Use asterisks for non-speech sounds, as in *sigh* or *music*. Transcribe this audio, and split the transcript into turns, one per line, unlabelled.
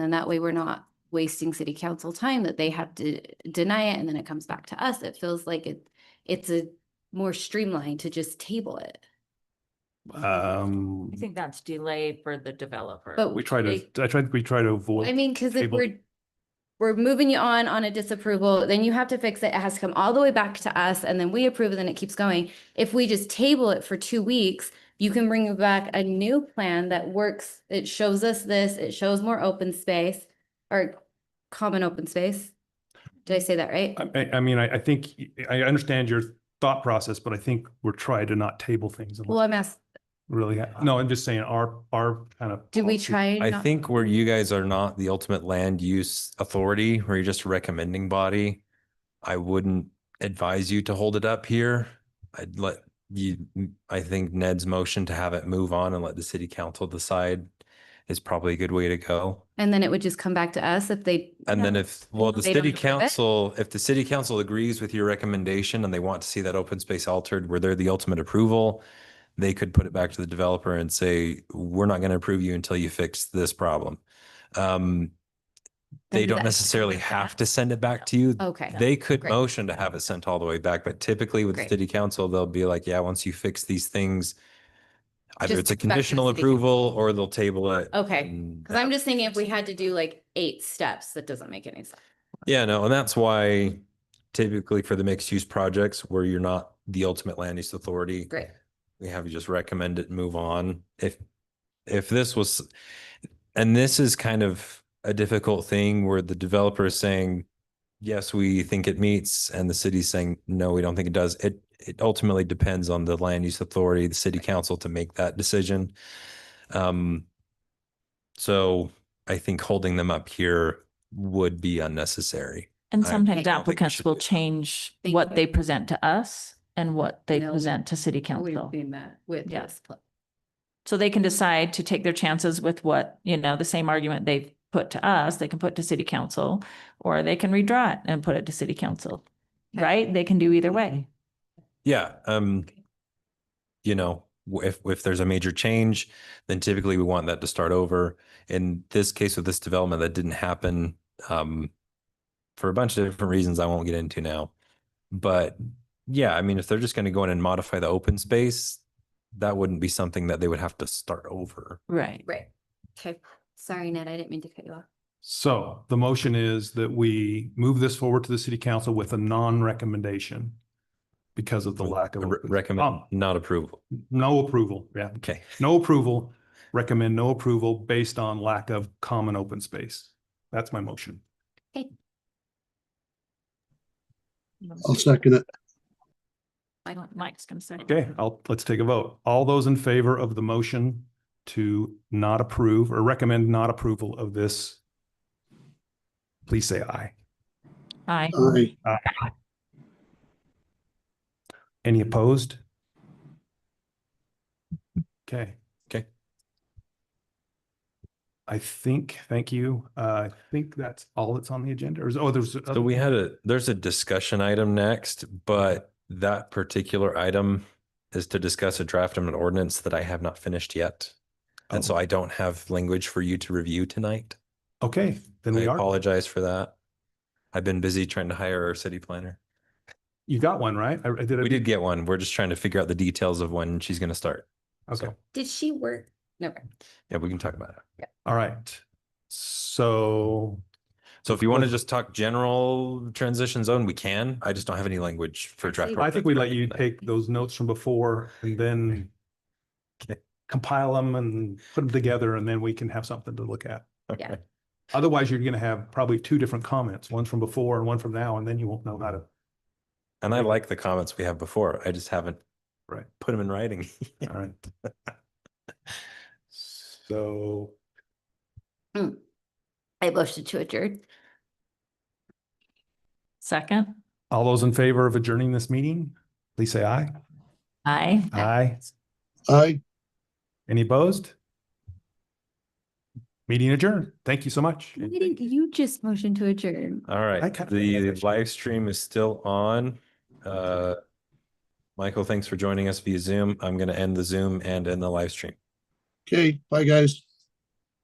And that way we're not wasting city council time that they have to deny it and then it comes back to us. It feels like it, it's a more streamlined to just table it.
Um,
I think that's delayed for the developer.
But
we try to,
Like-
I tried, we try to avoid.
I mean, because if
table-
we're, we're moving you on, on a disapproval, then you have to fix it. It has to come all the way back to us and then we approve and then it keeps going. If we just table it for two weeks, you can bring back a new plan that works. It shows us this, it shows more open space or common open space. Did I say that right?
I, I- I mean, I, I think, y- I understand your thought process, but I think we're trying to not table things. and
Well, I'm asked,
Really, ha- no, I'm just saying our, our kind of.
did we
policy-
try?
I
not-
think where you guys are not the ultimate land use authority, where you're just a recommending body, I wouldn't advise you to hold it up here. I'd let you, I think Ned's motion to have it move on and let the city council decide is probably a good way to go.
And then it would just come back to us if they.
And then if, well, the
They don't
city
approve it?
council, if the city council agrees with your recommendation and they want to see that open space altered, where they're the ultimate approval, they could put it back to the developer and say, we're not going to approve you until you fix this problem. Um,
Then
They
does
don't
that-
necessarily have to send it back to you.
Okay.
They could
Oh, great.
motion to have it sent all the way back, but typically with the
Great.
city council, they'll be like, yeah, once you fix these things, either
Just
it's a
back to the
conditional
city council.
approval or they'll table it.
Okay,
and
Cause I'm
Mm, that-
just thinking
*laughs*
if we had to do like eight steps, that doesn't make any sense.
Yeah, no, and that's why typically for the mixed use projects where you're not the ultimate land use authority.
Great.
We have you just recommend it, and move on. If, if this was, and this is kind of a difficult thing where the developer is saying, yes, we think it meets, and the city's saying, no, we don't think it does. It, it ultimately depends on the land use authority, the city council to make that decision. Um, so I think holding them up here would be unnecessary.
And
I-
sometimes
I don't think we
applicants
should
will
do that.
change
Thank
what
you.
they present to us and what they
No,
present to city
We've
council.
been that with
Yeah.
this. pl-
So they can decide to take their chances with what, you know, the same argument they've put to us, they can put to city council, or they can redraw it and put it to city council.
Okay.
Right? They can do either way.
Yeah, um, you know, w- if, if there's a major change, then typically we want that to start over. In this case with this development, that didn't happen, um, for a bunch of different reasons I won't get into now. But yeah, I mean, if they're just going to go in and modify the open space, that wouldn't be something that they would have to start over.
Right.
Right. Okay. Sorry, Ned, I didn't mean to cut you off.
So the motion is that we move this forward to the city council with a non-recommendation because of the lack of.
Re-
open-
Recommend
Um,
not approval.
No approval, yeah,
Okay.
no approval, recommend no approval based on lack of common open space. That's my motion.
I'll second it.
Mike's gonna say.
Okay, I'll, let's take a vote. All those in favor of the motion to not approve or recommend not approval of this, please say aye.
Aye.
Aye.
Any opposed? Okay.
Okay.
I think, thank you. Uh, I think that's all that's on the agenda. Or is, oh, there's.
So we had a, there's a discussion item next, but that particular item is to discuss a draft of an ordinance that I have not finished yet. And
Oh.
so I don't have language for you to review tonight.
Okay, then
I
we are.
apologize for that. I've been busy trying to hire our city planner.
You got one, right? I I did.
We did get one. We're just trying to figure out the details of when she's going to start.
Okay.
so.
Did she work? Never.
Yeah, we can talk about it.
All right. So
So if you want to
Let's-
just talk general transition zone, we can. I just don't have any language for draft.
I think we let
ordinance.
you take those notes from before and then compile them and put them together and then we can have something to look at.
Yeah.
Otherwise, you're going to have probably two different comments, one from before and one from now, and then you won't know how to.
And I like the comments we have before. I just haven't
Right.
put them in writing.
All
*laughs*
right. So
Mm. I motioned to adjourn.
Second?
all those in favor of adjourning this meeting, please say aye.
Aye.
Aye.
Aye.
Any opposed? Meeting adjourned. Thank you so much.
Why didn't you just motion to adjourn?
All right,
kinda like that
the
actually.
live stream is still on. Uh, Michael, thanks for joining us via Zoom. I'm going to end the Zoom and end the live stream.
Okay, bye, guys.